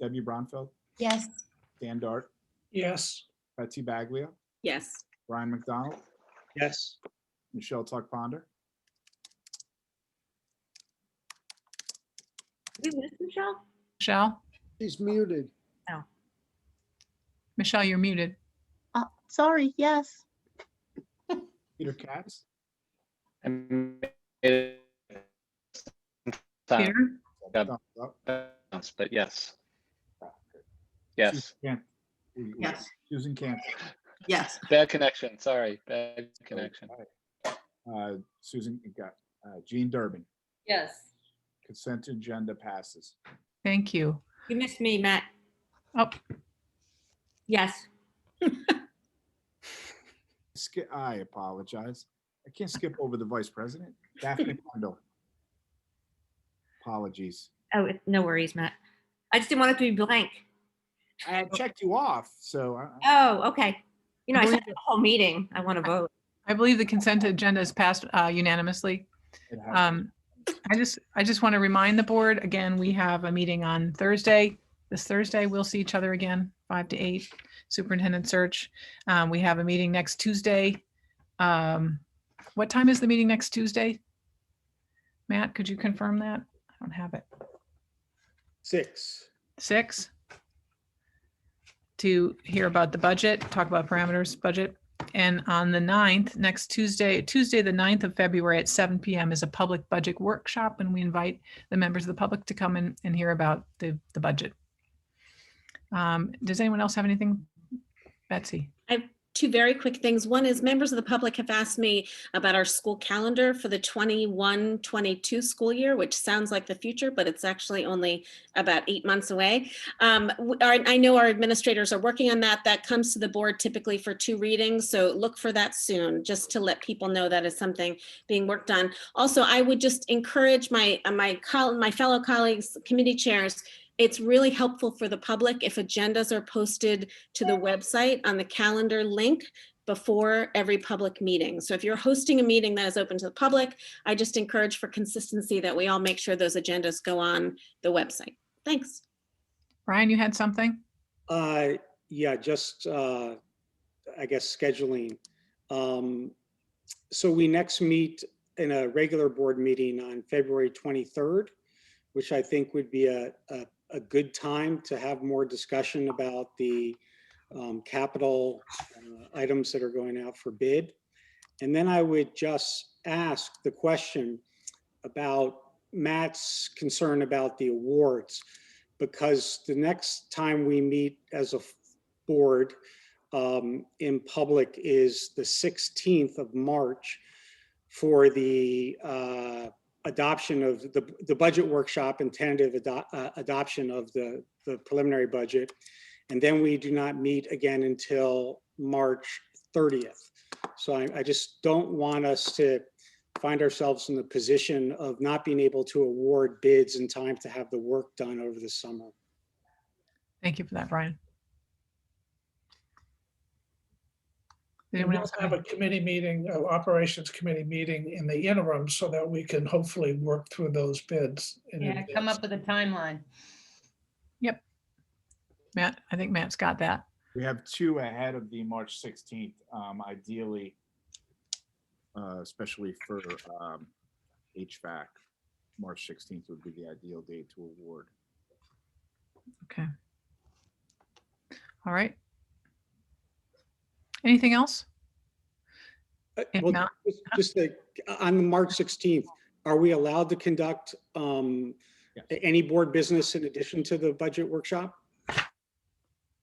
Debbie Bronfeld, Yes. Dan Dart, Yes. Betsy Baglia, yes, Ryan McDonald, Yes. Michelle Tuck Ponder. Did we miss Michelle? Michelle? She's muted. Michelle, you're muted. Uh, sorry, yes. Peter Katz, I made it Peter? sound, Yeah. thumbs up. But yes. Yes, Susan Can- we- we- Yes. Susan Cantor. Yes. bad connection, sorry, bad connection. Uh, Susan, you got uh, Jean Durbin. yes. Consent agenda passes. Thank you. You missed me, Matt. Oh, Yes. Sk- I apologize. I can't skip over the vice president. Daphne Pondo. Apologies. Oh, it- no worries, Matt. I just didn't want it to be blank. I had checked you off, so I- I- Oh, okay. You know, I said the whole meeting, I want to vote. I believe the consent agenda is passed uh, unanimously. it happened. Um, I just, I just want to remind the board, again, we have a meeting on Thursday. This Thursday, we'll see each other again, five to eight, superintendent search. Um, we have a meeting next Tuesday. Um, what time is the meeting next Tuesday? Matt, could you confirm that? I don't have it. Six. Six? To hear about the budget, talk about parameters, budget. And on the 9th, next Tuesday, Tuesday, the 9th of February at seven PM is a public budget workshop and we invite the members of the public to come in and hear about the, the budget. Um, Does anyone else have anything? Betsy? Two very quick things. One is members of the public have asked me about our school calendar for the 21, 22 school year, which sounds like the future, but it's actually only about eight months away. Um, w- our- I know our administrators are working on that. That comes to the board typically for two readings, so look for that soon, just to let people know that is something being worked on. Also, I would just encourage my, uh, my, col- my fellow colleagues, committee chairs, it's really helpful for the public if agendas are posted to the website on the calendar link before every public meeting. So if you're hosting a meeting that is open to the public, I just encourage for consistency that we all make sure those agendas go on the website. Thanks. Brian, you had something? Uh, yeah, just, uh, I guess scheduling. Um, so we next meet in a regular board meeting on February 23rd, which I think would be a, a, a good time to have more discussion about the um, capital uh, items that are going out for bid. And then I would just ask the question about Matt's concern about the awards because the next time we meet as a f- board um, in public is the 16th of March for the uh, adoption of the, the budget workshop and tentative ado- uh, adoption of the, the preliminary budget. And then we do not meet again until March 30th. So I, I just don't want us to find ourselves in the position of not being able to award bids in time to have the work done over the summer. Thank you for that, Brian. Did We Anyone will else? have have a any- committee meeting, uh, operations committee meeting in the interim so that we can hopefully work through those bids. in Yeah, come advance. up with a timeline. Matt, I think Matt's got that. We have two ahead of the March 16th, um, ideally, uh, especially for um, HVAC. March 16th would be the ideal date to award. All right. Anything else? Uh, If well, not- just- Just like, on the March 16th, are we allowed to conduct um, Yes. a- any board business in addition to the budget workshop?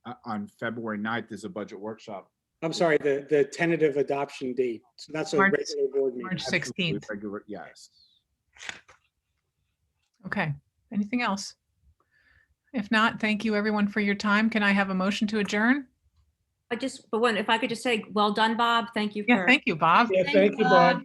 Uh, On February 9th is a budget workshop. I'm sorry, the, the tentative adoption date. So that's a March- regular board meeting. March Absolutely 16th. Regular, yes. Okay. Anything else? If not, thank you everyone for your time. Can I have a motion to adjourn? I just, but one, if I could just say, well done, Bob. Thank you Yeah, for. thank you, Bob. Yeah, thank you, Bob.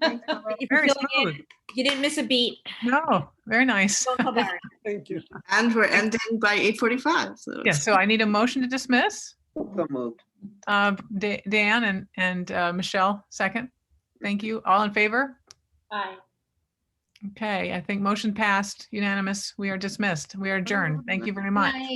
Thank you for Very filling in. smooth. You didn't miss a beat. No, very nice. Don't feel bad. Thank you. And we're ending by eight forty-five, so. Yeah, so I need a motion to dismiss. So moved. Uh, Da- Dan and, and uh, Michelle, second. Thank you. All in favor? Bye. Okay, I think motion passed unanimous. We are dismissed. We are adjourned. Thank you very much.